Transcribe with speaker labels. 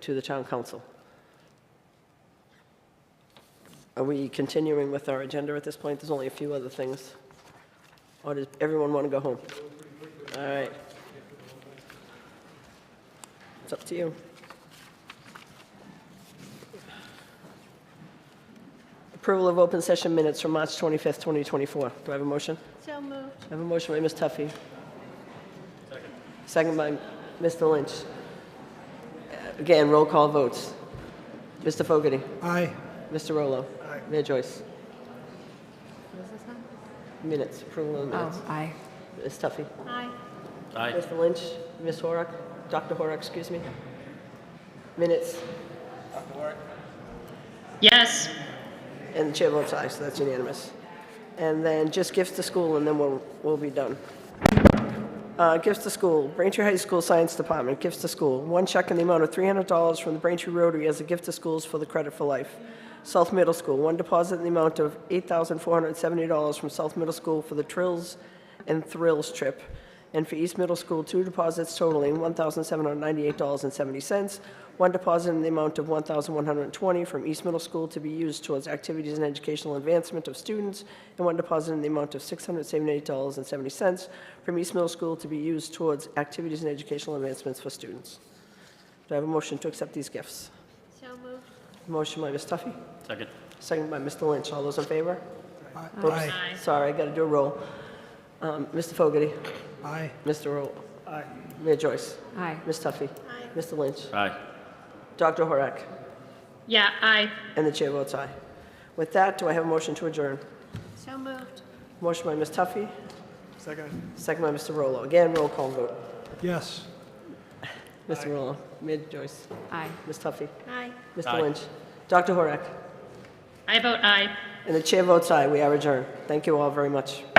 Speaker 1: to the town council. Are we continuing with our agenda at this point? There's only a few other things. Or does everyone want to go home? All right. It's up to you. Approval of open session minutes from March 25th, 2024. Do I have a motion?
Speaker 2: So moved.
Speaker 1: I have a motion by Ms. Tuffy. Second. Second by Mr. Lynch. Again, roll call votes. Mr. Fogarty.
Speaker 3: Aye.
Speaker 1: Mr. Rolo. Mayor Joyce. Minutes, approval of the minutes.
Speaker 4: Oh, aye.
Speaker 1: Ms. Tuffy.
Speaker 2: Aye.
Speaker 5: Aye.
Speaker 1: Mr. Lynch, Ms. Horak, Dr. Horak, excuse me. Minutes,
Speaker 6: Yes.
Speaker 1: and the chair votes aye, so that's unanimous. And then just gifts to school, and then we'll, we'll be done. Uh, Gifts to school, Braintree High School Science Department, gifts to school. One check in the amount of $300 from the Braintree Rotary as a gift to schools for the Credit for Life. South Middle School, one deposit in the amount of $8,470 from South Middle School for the Trills and Thrills trip. And for East Middle School, two deposits totaling $1,798.70. One deposit in the amount of $1,120 from East Middle School to be used towards activities and educational advancement of students, and one deposit in the amount of $678.70 from East Middle School to be used towards activities and educational advancements for students. Do I have a motion to accept these gifts?
Speaker 2: So moved.
Speaker 1: Motion by Ms. Tuffy,
Speaker 5: Second.
Speaker 1: second by Mr. Lynch. All those in favor?
Speaker 3: Aye.
Speaker 6: Aye.
Speaker 1: Sorry, I got to do a roll. Um, Mr. Fogarty,
Speaker 3: Aye.
Speaker 1: Mr. Roll. Mayor Joyce.
Speaker 4: Aye.
Speaker 1: Ms. Tuffy.
Speaker 2: Aye.
Speaker 1: Mr. Lynch.
Speaker 5: Aye.
Speaker 1: Dr. Horak.
Speaker 6: Yeah, aye.
Speaker 1: And the chair votes aye. With that, do I have a motion to adjourn?
Speaker 2: So moved.
Speaker 1: Motion by Ms. Tuffy,
Speaker 3: Second.
Speaker 1: second by Mr. Rolo. Again, roll call vote.
Speaker 3: Yes.
Speaker 1: Mr. Rolo, Mayor Joyce,
Speaker 4: Aye.
Speaker 1: Ms. Tuffy,
Speaker 2: Aye.
Speaker 1: Mr.
Speaker 5: Aye.
Speaker 1: Lynch, Dr. Horak,
Speaker 6: I vote aye.
Speaker 1: and the chair votes aye. We are adjourned. Thank you all very much.